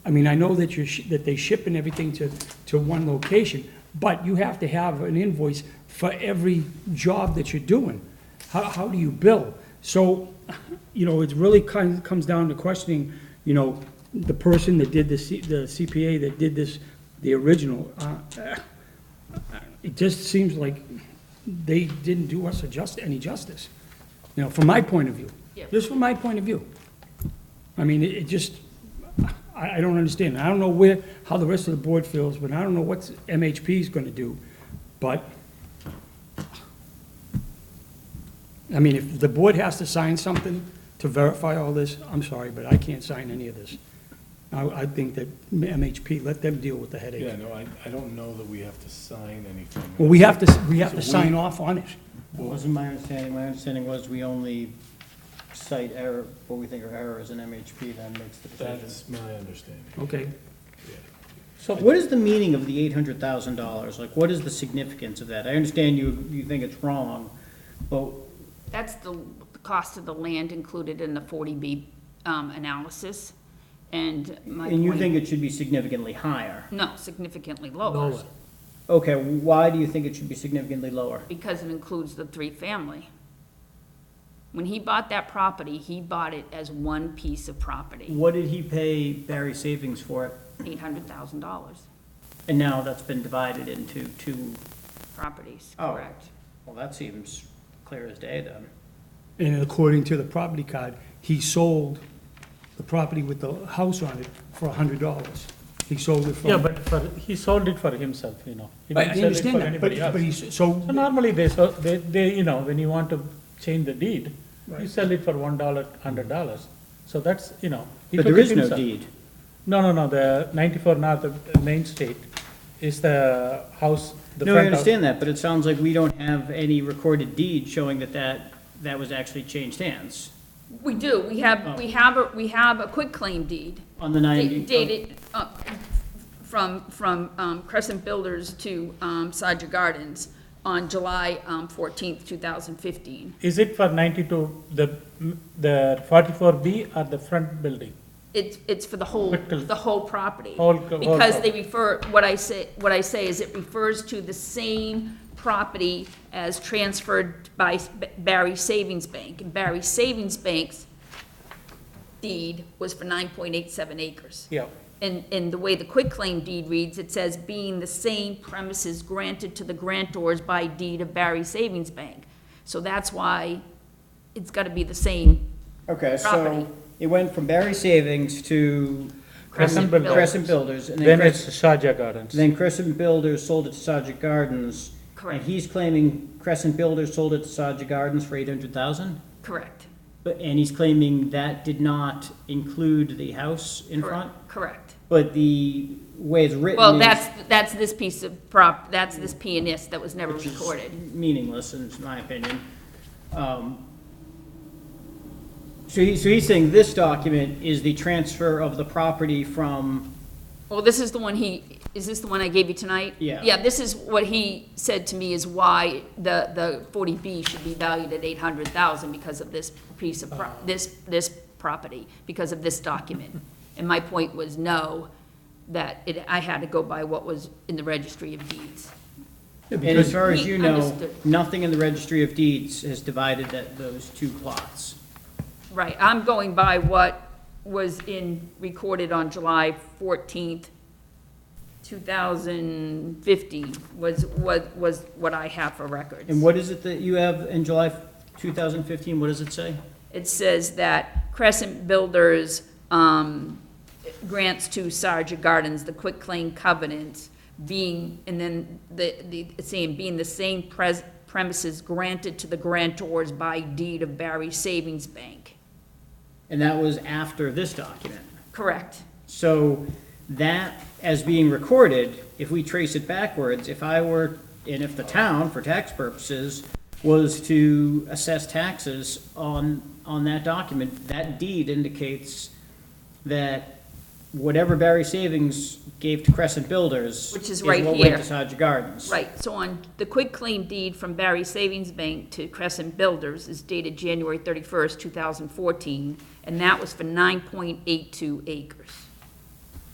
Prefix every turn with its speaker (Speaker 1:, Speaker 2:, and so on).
Speaker 1: I mean, I know that you're, sh- that they ship and everything to, to one location, but you have to have an invoice for every job that you're doing. How, how do you bill? So, you know, it really kind of comes down to questioning, you know, the person that did the C- the CPA that did this, the original. uh, It just seems like they didn't do us a just, any justice, you know, from my point of view.
Speaker 2: Yeah.
Speaker 1: Just from my point of view. I mean, it it just, I, I don't understand. I don't know where, how the rest of the board feels, but I don't know what MHP is gonna do. But, I mean, if the board has to sign something to verify all this, I'm sorry, but I can't sign any of this. I, I think that MHP, let them deal with the
Speaker 3: Yeah,
Speaker 1: headache.
Speaker 3: no, I, I don't know that we have to sign anything.
Speaker 1: Well, we have to, we have to
Speaker 3: So we-
Speaker 1: sign off on it.
Speaker 4: What wasn't my understanding, my understanding was we only cite error, what we think are errors, and MHP then makes the decision.
Speaker 3: That's my understanding.
Speaker 1: Okay.
Speaker 4: So what is the meaning of the eight hundred thousand dollars? Like, what is the significance of that? I understand you, you think it's wrong, but,
Speaker 2: That's the cost of the land included in the 40B um, analysis, and my
Speaker 4: and you think
Speaker 2: point,
Speaker 4: it should be significantly higher.
Speaker 2: no, significantly lower,
Speaker 1: Lower.
Speaker 4: Okay, why do you think it should be significantly lower?
Speaker 2: because it includes the three-family. When he bought that property, he bought it as one piece of property,
Speaker 4: What did he pay Barry Savings for it?
Speaker 2: $800,000
Speaker 4: And now that's been divided into two,
Speaker 2: properties,
Speaker 4: Oh.
Speaker 2: correct?
Speaker 4: well, that seems clear as day then.
Speaker 1: And according to the property card, he sold the property with the house on it for a hundred dollars. He sold it for.
Speaker 5: Yeah, but for, he sold it for himself, you know. He
Speaker 1: I I
Speaker 5: didn't sell it for
Speaker 1: understand that, but,
Speaker 5: anybody else.
Speaker 1: but he's, so,
Speaker 5: So normally they, so they, they, you know, when you want to change the deed, you sell it for one dollar, hundred dollars. So that's, you know. he
Speaker 4: But
Speaker 5: took
Speaker 4: there
Speaker 5: it
Speaker 4: is no
Speaker 5: himself.
Speaker 4: deed.
Speaker 5: No, no, no, the ninety-four north of Main Street is the house, the
Speaker 4: No, I
Speaker 5: front house.
Speaker 4: understand that, but it sounds like we don't have any recorded deed showing that that, that was actually changed hands
Speaker 2: We do, we have, we have, a- we have a quitclaim deed.
Speaker 4: Oh. on the
Speaker 2: Da-
Speaker 4: ninety.
Speaker 2: dated uh, from, from um, Crescent Builders to um, Saja Gardens on July um, 14th, 2015.
Speaker 5: Is it for ninety-two, the, the forty-four B or the front building?
Speaker 2: It's, it's for the whole,
Speaker 5: Quitclaim.
Speaker 2: the whole property.
Speaker 5: Whole- whole
Speaker 2: Because they
Speaker 5: property.
Speaker 2: refer, what I say, what I say is it refers to the same property as transferred by Barry Savings Bank. And Barry Savings Bank's deed was for 9.87 acres.
Speaker 5: Yeah,
Speaker 2: And, and the way the quitclaim deed reads, it says, being the same premises granted to the grantors by deed of Barry Savings Bank. So that's why it's gotta be the same.
Speaker 4: Okay,
Speaker 2: property.
Speaker 4: so it went from Barry Savings to
Speaker 5: Crescent Builders.
Speaker 4: Crescent Builders, and then
Speaker 5: then it's
Speaker 4: Crescent,
Speaker 5: Shaja Gardens.
Speaker 4: then Crescent Builders sold it to Sajik Gardens.
Speaker 2: Correct.
Speaker 4: And he's claiming Crescent Builders sold it to Sajik Gardens for eight hundred thousand?
Speaker 2: Correct.
Speaker 4: But, and he's claiming that did not include the house in front?
Speaker 2: Correct. Correct.
Speaker 4: But the way it's written
Speaker 2: Well,
Speaker 4: is
Speaker 2: that's, that's this piece of prop, that's this pianist that was never recorded.
Speaker 4: meaningless, in my opinion. Um, So he, so he's saying this document is the transfer of the property from,
Speaker 2: Well, this is the one he, is this the one I gave you tonight?
Speaker 4: Yeah.
Speaker 2: Yeah, this is what he said to me is why the, the forty B should be valued at eight hundred thousand because of this piece of, pro- this, this property, because of this document. And my point was no, that it, I had to go by what was in the registry of deeds.
Speaker 4: and as far as
Speaker 2: He
Speaker 4: you know,
Speaker 2: understood.
Speaker 4: nothing in the registry of deeds has divided that, those two plots.
Speaker 2: Right, I'm going by what was in, recorded on July fourteenth, two thousand fifteen, was, was, was what I have for records.
Speaker 4: And what is it that you have in July 2015, what does it say?
Speaker 2: It says that Crescent Builders um, grants to Sarja Gardens the quitclaim covenants being, and then the, the, it's saying, being the same pres- premises granted to the grantors by deed of Barry Savings Bank.
Speaker 4: And that was after this document.
Speaker 2: Correct.
Speaker 4: So that, as being recorded, if we trace it backwards, if I were, and if the town, for tax purposes, was to assess taxes on, on that document, that deed indicates that whatever Barry Savings gave to Crescent Builders.
Speaker 2: Which is right
Speaker 4: what went
Speaker 2: here.
Speaker 4: to Sajah Gardens.
Speaker 2: Right, so on the quitclaim deed from Barry Savings Bank to Crescent Builders is dated January thirty-first, two thousand fourteen, and that was for nine point eight two acres.